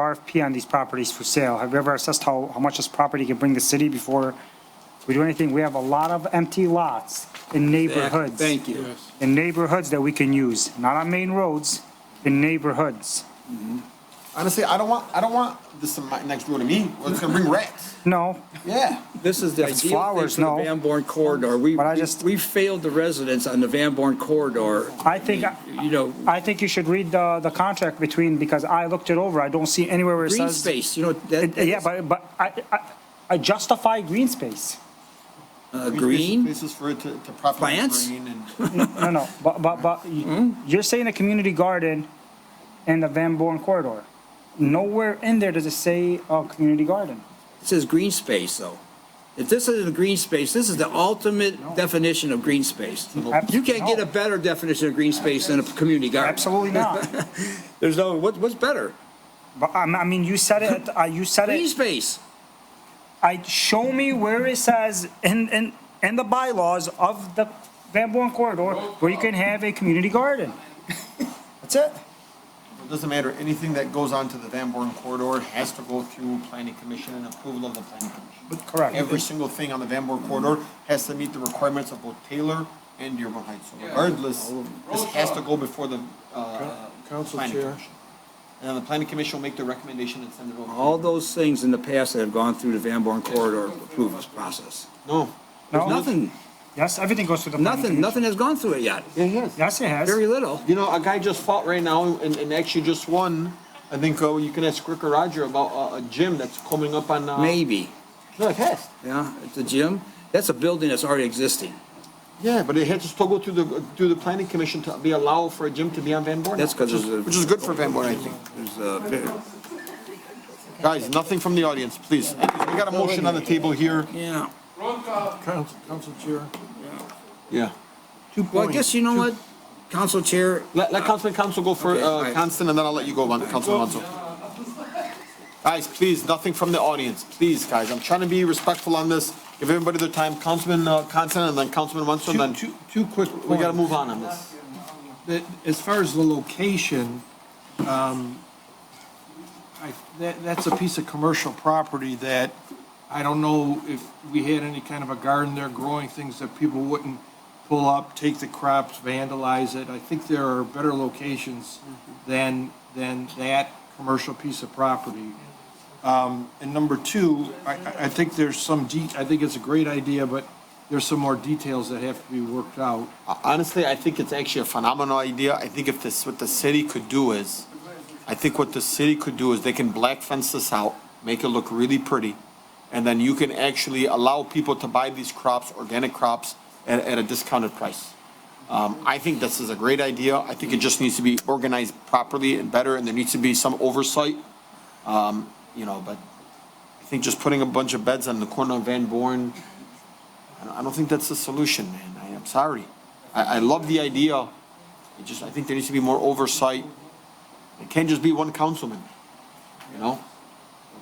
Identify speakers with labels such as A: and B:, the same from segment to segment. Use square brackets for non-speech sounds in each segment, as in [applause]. A: RFP on these properties for sale. Have you ever assessed how, how much this property could bring the city before we do anything? We have a lot of empty lots in neighborhoods.
B: Thank you.
A: In neighborhoods that we can use, not on main roads, in neighborhoods.
C: Honestly, I don't want, I don't want this in my next door to me. Well, It's gonna bring rats.
A: [laughs] No,
C: Yeah.
B: This is the
A: It's
B: ideal thing
A: flowers,
B: for the
A: no.
B: Van Born corridor. We,
A: But I just-
B: we failed the residents on the Van Born corridor.
A: I think,
B: You know,
A: I think you should read the, the contract between, because I looked it over, I don't see anywhere where it
B: green
A: says.
B: space, you know, that.
A: Yeah, but, but I, I, I justify green space.
B: Uh, green,
C: Places for it to, to prop up
B: Plants?
C: green and. [laughs]
A: No, no, but, but, but y- you're saying a community garden in the Van Born corridor. Nowhere in there does it say a community garden.
B: it says green space though. If this isn't a green space, this is the ultimate definition of green space.
A: Ab-
B: You can't get
A: no.
B: a better definition of green space than a community garden.
A: Absolutely not.
B: There's no, what, what's better?
A: But um, I, I mean, you said it, uh, you said
B: Green
A: it.
B: space.
A: I, show me where it says in, in, in the bylaws of the Van Born corridor where you can have a community garden. That's it.
C: It doesn't matter, anything that goes onto the Van Born corridor has to go through planning commission and approval of the planning commission.
A: Correct.
C: Every single thing on the Van Born corridor has to meet the requirements of both Taylor and Dearborn Heights. So Regardless, this has to go before the, uh,
D: Council
C: planning
D: Chair.
C: commission. And then the planning commission will make the recommendation and send it over.
B: All those things in the past that have gone through the Van Born corridor approval process.
C: No.
B: There's
A: No?
B: nothing,
A: Yes, everything goes through the. planning
B: nothing,
A: commission.
B: nothing has gone through it yet.
C: Yeah, yes.
A: Yes, it has.
B: Very little.
C: You know, a guy just fought right now and, and actually just won. I think, oh, you can ask Rick or Roger about uh, a gym that's coming up on, uh.
B: Maybe,
C: No, it has.
B: yeah, it's a gym. That's a building that's already existing.
C: Yeah, but it had to still go through the, through the planning commission to be allowed for a gym to be on Van Born.
B: That's 'cause
C: Which is-
B: there's a-
C: Which is good for Van Born, I think.
B: There's a,
C: Guys, nothing from the audience, please. We got a motion on the table here.
B: yeah.
D: Council, Council Chair.
C: Yeah.
B: Well, I guess you know what, Council Chair,
C: Let, let Councilman Council go for,
B: Okay, all
C: uh,
B: right.
C: Constant, and then I'll let you go, Lon- Councilman Council. Guys, please, nothing from the audience, please, guys. I'm trying to be respectful on this. Give everybody their time. Councilman, uh, Constant, and then Councilman Wenzel, and
D: Two,
C: then
D: two, two quick points.
C: we gotta move on on this.
D: That, as far as the location, um, I, that, that's a piece of commercial property that I don't know if we had any kind of a garden there growing things that people wouldn't pull up, take the crops, vandalize it. I think there are better locations than, than that commercial piece of property. Um, And number two, I, I- I think there's some de, I think it's a great idea, but there's some more details that have to be worked out.
C: Uh, Honestly, I think it's actually a phenomenal idea. I think if this, what the city could do is, I think what the city could do is they can black fence this out, make it look really pretty. And then you can actually allow people to buy these crops, organic crops, at, at a discounted price. Um, I think this is a great idea. I think it just needs to be organized properly and better, and there needs to be some oversight. Um, you know, but I think just putting a bunch of beds on the corner of Van Born, I don't- I don't think that's the solution, man. I am sorry. I, I love the idea. It just, I think there needs to be more oversight. It can't just be one councilman, you know?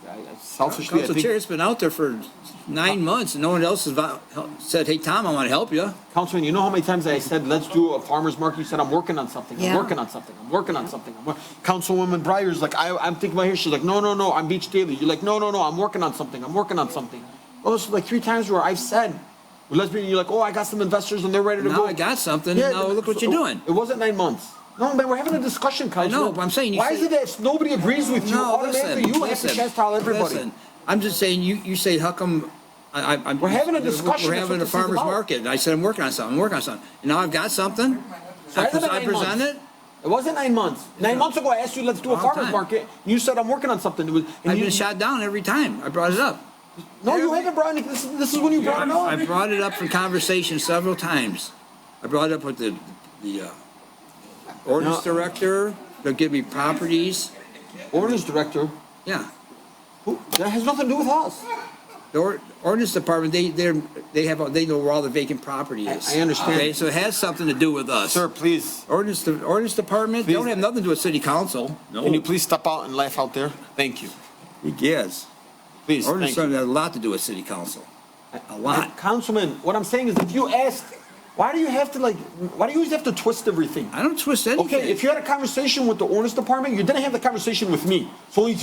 C: I- I- Selfishly, I
B: Council Chair,
C: think, Uh,
B: it's been out there for nine months and no one else has vo- hel- said, hey, Tom, I want to help you.
C: Councilman, you know how many times I said, let's do a farmer's market? You said, I'm working on something, I'm
E: Yeah.
C: working on something, I'm working on something. I'm wor-" Councilwoman Breyer's like, I, I'm thinking about here, she's like, no, no, no, I'm Beach Daily. You're like, no, no, no, I'm working on something, I'm working on something. Oh, it's like three times where I've said, let's be, you're like, oh, I got some investors and they're ready to go.
B: Now I got something, and now
C: but-
B: look what you're
C: so-
B: doing.
C: It wasn't nine months. No, man, we're having a discussion, Councilman.
B: but I'm saying you
C: Why is
B: say-
C: it that if nobody agrees with you,
B: No,
C: automatically
B: listen,
C: you have to
B: listen,
C: chastise everybody?
B: listen. I'm just saying, you, you say, how come, I, I, I'm.
C: We're having a discussion,
B: We're
C: that's what
B: having a
C: this is
B: farmer's
C: about.
B: market. and I said, I'm working on something, I'm working on something. And now I've got something. I
C: It's been
B: pres- I
C: nine months.
B: present it.
C: It wasn't nine months. Nine months ago, I asked you, let's do a
B: Long
C: farmer's
B: time.
C: market. You said, I'm working on something. It was- and
B: I've
C: you-
B: been shot down every time. I brought it up.
C: No, you haven't brought it. This, is- this is when you brought it
B: I
C: up.
B: brought it up for conversation several times. I brought it up with the, the, uh, ordinance director, they'll give me properties,
C: Ordinance director,
B: yeah.
C: who, that has nothing to do with us.
B: The or- ordinance department, they, they're, they have, they know where all the vacant property is.
C: I- I understand.
B: Okay, So it has something to do with us.
C: please,
B: Ordinance, the ordinance department, they don't
C: Please.
B: have nothing to do with city council.
C: please step out and laugh out there? Thank you.
B: Yes.
C: Please,
B: Ordinance department has a lot to do with city council, a lot.
C: Councilman, what I'm saying is if you asked, why do you have to like, why do you always have to twist everything?
B: I don't twist anything.
C: Okay, if you had a conversation with the ordinance department, you didn't have the conversation with me. So if you